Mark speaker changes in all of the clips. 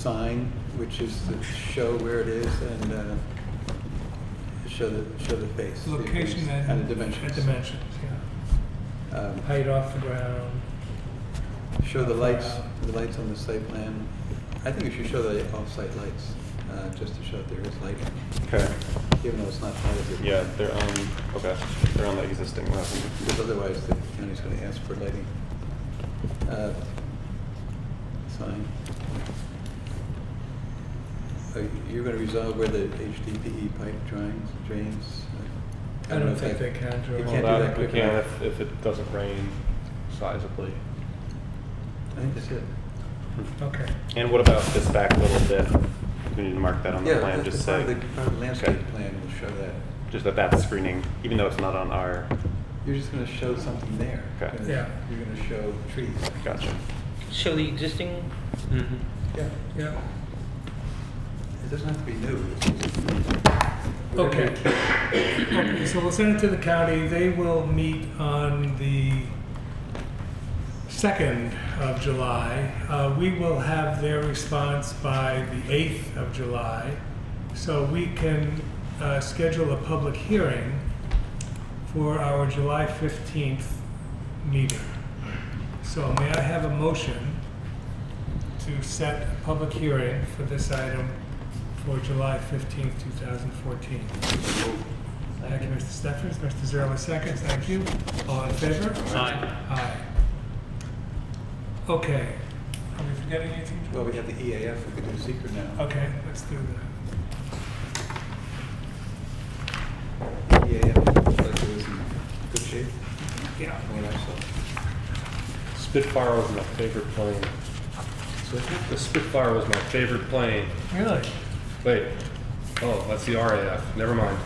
Speaker 1: sign, which is to show where it is and uh, show the, show the face. the
Speaker 2: Location
Speaker 1: face
Speaker 2: and.
Speaker 1: And the dimensions.
Speaker 2: and dimensions, yeah.
Speaker 1: Um,
Speaker 2: Height off the ground.
Speaker 1: Show the lights, the lights on the site plan. I think we should show the off-site lights, uh, just to show that there is lighting,
Speaker 3: Okay,
Speaker 1: even though it's not part of the.
Speaker 3: yeah, they're um, on, okay, they're on the existing level.
Speaker 1: Because otherwise, the county's gonna ask for lighting. Uh, Sign. Are you- You're gonna resolve where the HDPE E pipe drains, drains? uh,
Speaker 2: I
Speaker 1: know
Speaker 2: don't
Speaker 1: if
Speaker 2: think they
Speaker 1: that-
Speaker 2: can draw.
Speaker 1: You
Speaker 3: Well,
Speaker 1: can't do
Speaker 3: that-
Speaker 1: that quick
Speaker 3: We can
Speaker 1: enough.
Speaker 3: if, if it doesn't rain sizably.
Speaker 1: I think that's it.
Speaker 2: Okay.
Speaker 3: And what about this back little bit? We need to mark that on the
Speaker 1: Yeah,
Speaker 3: plan,
Speaker 1: that's
Speaker 3: just
Speaker 1: part of
Speaker 3: say,
Speaker 1: the- part of the landscape plan will show that.
Speaker 3: just that that's screening, even though it's not on our,
Speaker 1: You're just gonna show something there.
Speaker 3: Okay.
Speaker 1: You're gonna-
Speaker 2: Yeah.
Speaker 1: You're gonna show trees.
Speaker 3: gotcha.
Speaker 4: Show the existing,
Speaker 1: Yeah,
Speaker 2: Yeah.
Speaker 1: it doesn't have to be new. It's just-
Speaker 2: Okay. Okay, so we'll send it to the county. They will meet on the 2nd of July. Uh, We will have their response by the 8th of July, so we can uh, schedule a public hearing for our July 15th meeting. So may I have a motion to set a public hearing for this item for July 15th, 2014? Thank you, Mr. Steffens. Mr. Zerler seconds. Thank you. All in favor?
Speaker 4: Aye.
Speaker 2: Aye. Okay. Are we forgetting anything? George?
Speaker 1: Well, we have the EAF, we could do secret now.
Speaker 2: Okay, let's do that.
Speaker 1: EAF, looks like it was in good shape,
Speaker 2: Yeah.
Speaker 1: from what I saw.
Speaker 3: Spitfire was my favorite plane.
Speaker 1: So I think
Speaker 3: The Spitfire was my favorite plane.
Speaker 2: Really?
Speaker 3: Wait, oh, that's the RAF, never mind.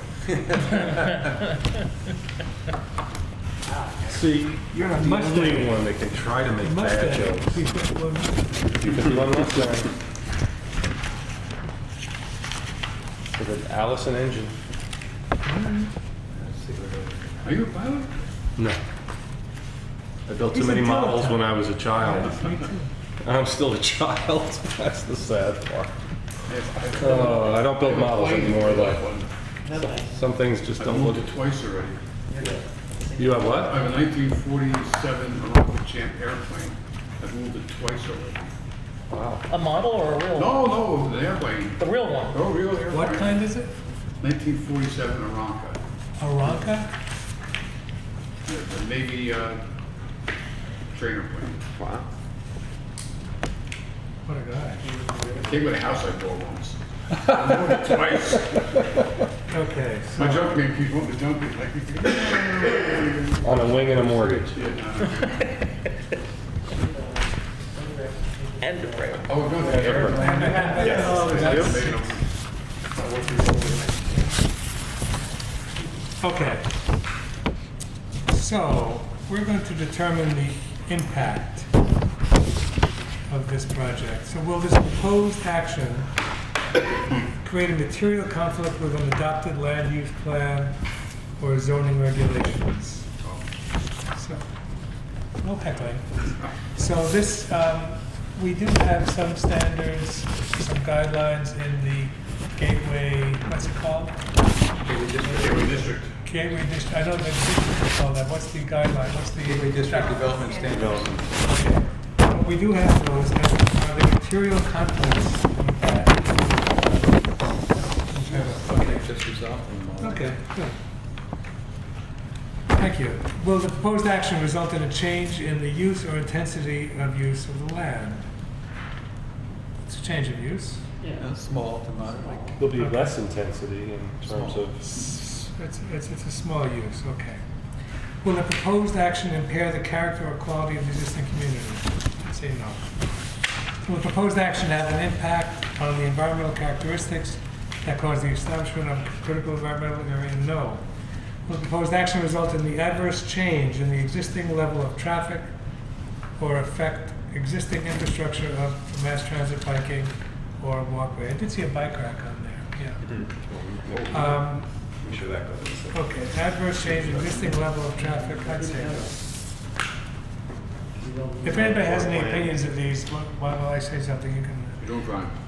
Speaker 3: See, you're not
Speaker 2: Mustang.
Speaker 3: one that can try to make
Speaker 2: Mustang.
Speaker 3: Because one Mustang. With an Allison engine.
Speaker 1: that's secret.
Speaker 3: Are you a pilot? No. I built too
Speaker 2: He's a
Speaker 3: many models
Speaker 2: pilot.
Speaker 3: when I was a child.
Speaker 2: Me too.
Speaker 3: I'm still a child. That's the sad part. Oh, I don't build models anymore, though. Some things just
Speaker 5: I've
Speaker 3: don't
Speaker 5: moved
Speaker 3: look.
Speaker 5: it twice already.
Speaker 3: You have what?
Speaker 5: I have a 1947 Morocco Champ airplane. I've moved it twice already.
Speaker 3: Wow.
Speaker 4: a model or a real? one?
Speaker 5: No, no, it was an airplane.
Speaker 4: The real one.
Speaker 5: Oh, real airplane.
Speaker 2: What kind is it?
Speaker 5: 1947 Aranca.
Speaker 2: Aranca?
Speaker 5: The- The Navy uh, trainer plane.
Speaker 3: Wow.
Speaker 2: What a guy.
Speaker 5: It came with a house I bought once. I moved it twice.
Speaker 2: Okay,
Speaker 5: My
Speaker 2: so,
Speaker 5: junk man keeps wanting to dump it. like-
Speaker 3: On a wing and a mortgage.
Speaker 5: Yeah,
Speaker 4: End of road.
Speaker 5: no. Oh, no, the airplane.
Speaker 2: Yes.
Speaker 5: Made 'em.
Speaker 2: okay. So, we're going to determine the impact of this project. So will this proposed action create a material conflict with an adopted land use plan or zoning regulations? So, no heckling. So this, um, we do have some standards, some guidelines in the gateway, what's it called?
Speaker 5: Gateway District.
Speaker 2: Gateway district, I don't know the district called that, what's the guideline, what's the?
Speaker 1: Gateway District Development Standards.
Speaker 2: But We do have those, and are the material conflicts with that? Okay.
Speaker 1: They've just resolved them all.
Speaker 2: Okay, good. Thank you. Will the proposed action result in a change in the use or intensity of use of the land? It's a change of use.
Speaker 1: Uh, Small to moderate.
Speaker 3: There'll be less intensity in terms of.
Speaker 2: It's, it's, it's a small use, okay. Will the proposed action impair the character or quality of the existing community? I'd say no. Will the proposed action have an impact on the environmental characteristics that cause the establishment of critical environmental area? No. Will the proposed action result in the adverse change in the existing level of traffic or affect existing infrastructure of mass transit biking or walkway? I did see a bike rack on there, yeah. Um,
Speaker 3: Make sure that goes.
Speaker 2: Okay, adverse change, existing level of traffic, I'd say no. If anybody has any opinions of these, why why don't I say something, you can
Speaker 5: You don't drive.